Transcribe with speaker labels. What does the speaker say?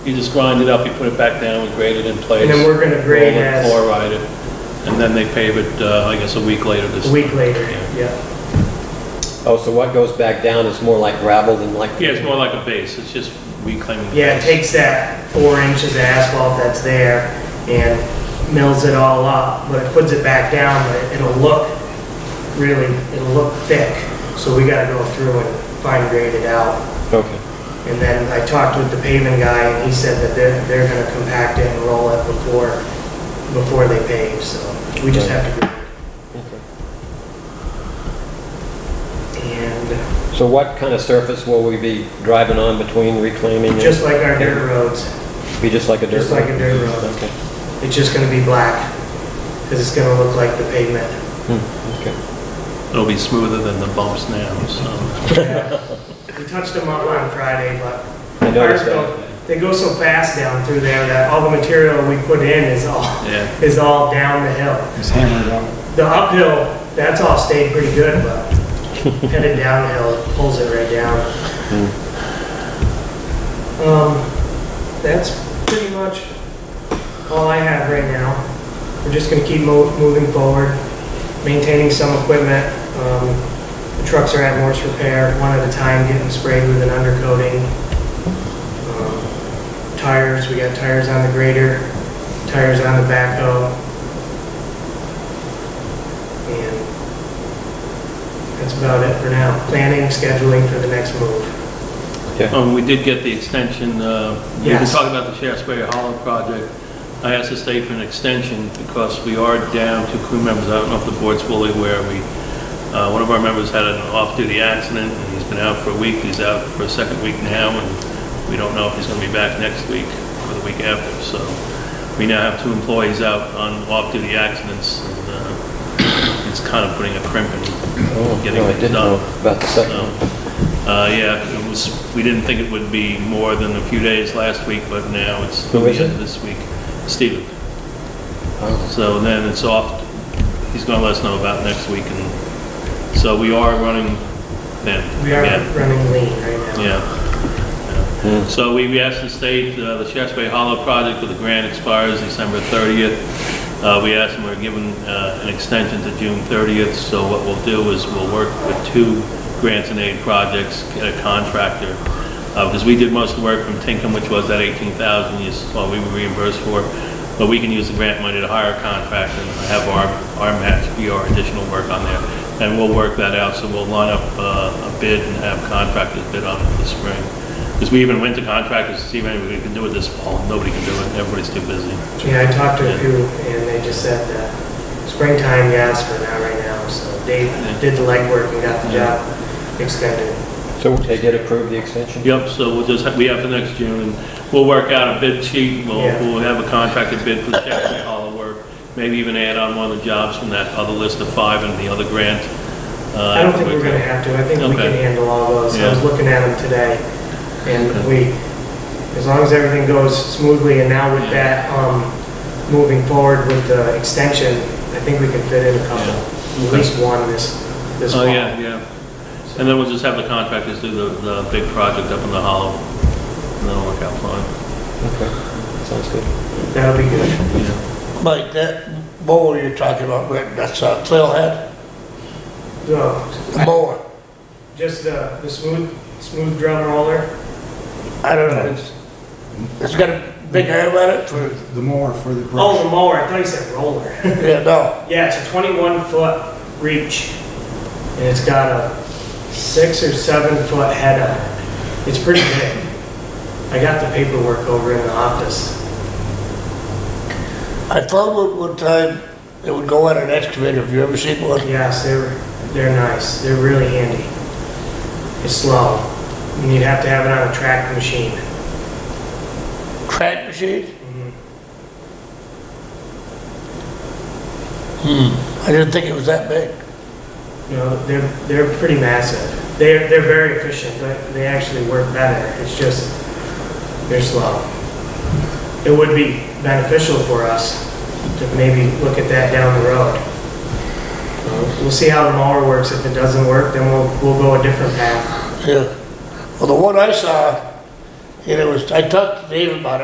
Speaker 1: You just grind it up, you put it back down, we grade it in place.
Speaker 2: And then we're gonna grade
Speaker 1: roll it,
Speaker 2: as-
Speaker 1: Chloride it, and then they pave it, uh, I guess, a week later this.
Speaker 2: a week later,
Speaker 1: Yeah.
Speaker 2: yeah.
Speaker 3: Oh, so what goes back down is more like gravel than like?
Speaker 1: Yeah, it's more like a base, it's just reclaiming. the
Speaker 2: Yeah, it
Speaker 1: base.
Speaker 2: takes that four inches of asphalt that's there and mills it all up, but it puts it back down, but it- it'll look really, it'll look thick. So we gotta go through and fine grade it out.
Speaker 3: Okay.
Speaker 2: And then I talked with the paving guy, and he said that they're, they're gonna compact it and roll it before, before they pave, so we just have to. And
Speaker 3: So what kind of surface will we be driving on between reclaiming? and-
Speaker 2: just like our dirt roads,
Speaker 3: Be just like a dirt road?
Speaker 2: just like a dirt road,
Speaker 3: Okay.
Speaker 2: it's just gonna be black, because it's gonna look like the pavement.
Speaker 3: Hmm, okay.
Speaker 1: It'll be smoother than the bumps now, so.
Speaker 2: We touched them up on Friday, but
Speaker 3: I noticed
Speaker 2: ours go-
Speaker 3: that.
Speaker 2: they go so fast down through there that all the material we put in is all,
Speaker 1: Yeah,
Speaker 2: is all down the hill.
Speaker 4: It's hammered out.
Speaker 2: The uphill, that's all stayed pretty good, but headed downhill, it pulls it right down.
Speaker 4: Hmm.
Speaker 2: Um, that's pretty much all I have right now. We're just gonna keep mo- moving forward, maintaining some equipment. Um, the trucks are at Morse Repair, one at a time, getting sprayed with an undercoating. Um, Tires, we got tires on the grader, tires on the backhoe. And that's about it for now. Planning, scheduling for the next move.
Speaker 1: um, we did get the extension, uh, we were
Speaker 2: Yes.
Speaker 1: talking about the Shasberry Hollow project. I asked the state for an extension because we are down to crew members, I don't know if the board's fully aware, we, uh, one of our members had an off-duty accident, and he's been out for a week, he's out for a second week now, and we don't know if he's gonna be back next week or the week after, so we now have two employees out on off-duty accidents, and, uh, it's kind of putting a crimp
Speaker 3: Oh,
Speaker 1: in getting
Speaker 3: no, I
Speaker 1: it
Speaker 3: didn't
Speaker 1: done.
Speaker 3: know about the second
Speaker 1: So,
Speaker 3: one.
Speaker 1: uh, yeah, it was, we didn't think it would be more than a few days last week, but now it's
Speaker 3: Who is
Speaker 1: the end
Speaker 3: it?
Speaker 1: of this week. Steven.
Speaker 3: Oh,
Speaker 1: So then it's off, he's gonna let us know about next week, and so we are running then.
Speaker 2: We are
Speaker 1: Yeah,
Speaker 2: running lean right now.
Speaker 1: Yeah.
Speaker 3: Hmm.
Speaker 1: Yeah. So we, we asked the state, uh, the Shasberry Hollow project with the grant expires December thirtieth. Uh, we asked them, we're given, uh, an extension to June thirtieth, so what we'll do is we'll work with two grants and aid projects, get a contractor. Uh, because we did most of the work from Tinkham, which was that eighteen thousand, you saw we were reimbursed for. But we can use the grant money to hire a contractor and have our, our match be our additional work on there. And we'll work that out, so we'll line up, uh, a bid and have contractors bid on it this spring. Because we even went to contractors to see if anybody can do it this fall. Nobody can do it. Everybody's too busy.
Speaker 2: Yeah, I talked to a few and they just said that springtime, yes, but not right now. So Dave did the legwork and got the
Speaker 1: Yeah.
Speaker 2: job extended.
Speaker 3: So they did approve the extension?
Speaker 1: Yep, so we'll just, we have the next June, and we'll work out a bid sheet. We'll,
Speaker 2: Yeah.
Speaker 1: we'll have a contracted bid for the Chapman Hollow work. Maybe even add on one of the jobs from that other list of five and the other grant. Uh,
Speaker 2: I don't think we're gonna have to, I think we can
Speaker 1: Okay.
Speaker 2: handle all those. I was
Speaker 1: Yeah.
Speaker 2: looking at them today and we, as long as everything goes smoothly and now with
Speaker 1: Yeah.
Speaker 2: that, um, moving forward with the extension, I think we can fit in a couple, at
Speaker 1: Okay.
Speaker 2: least one this, this fall.
Speaker 1: Oh, yeah, yeah. And then we'll just have the contractors do the, the big project up in the hollow. And that'll work out fine.
Speaker 3: Okay, sounds good.
Speaker 2: That'll be good.
Speaker 1: Yeah.
Speaker 5: Mike, that mower you're talking about, Rick, that's a trailhead
Speaker 2: So,
Speaker 5: mower.
Speaker 2: just the, the smooth, smooth drum roller,
Speaker 5: I don't know. it's- It's got a big arm on it for,
Speaker 4: The more for the
Speaker 2: oh, the
Speaker 4: brush.
Speaker 2: mower, I thought you said roller.
Speaker 5: yeah, no.
Speaker 2: Yeah, it's a twenty-one foot reach, and it's got a six or seven foot head on it. It's pretty big. I got the paperwork over in the office.
Speaker 5: I thought one, one time it would go on an excavator. Have you ever seen one?
Speaker 2: Yes, they're, they're nice, they're really handy. It's slow, and you'd have to have it on a track machine.
Speaker 5: Track machine?
Speaker 2: Mhm.
Speaker 5: I didn't think it was that big.
Speaker 2: You know, they're, they're pretty massive. They're, they're very efficient, they, they actually work better, it's just, they're slow. It would be beneficial for us to maybe look at that down the road. Uh, We'll see how the mower works, if it doesn't work, then we'll, we'll go a different path.
Speaker 5: Yeah. Well, the one I saw And it was, I talked to Dave about it.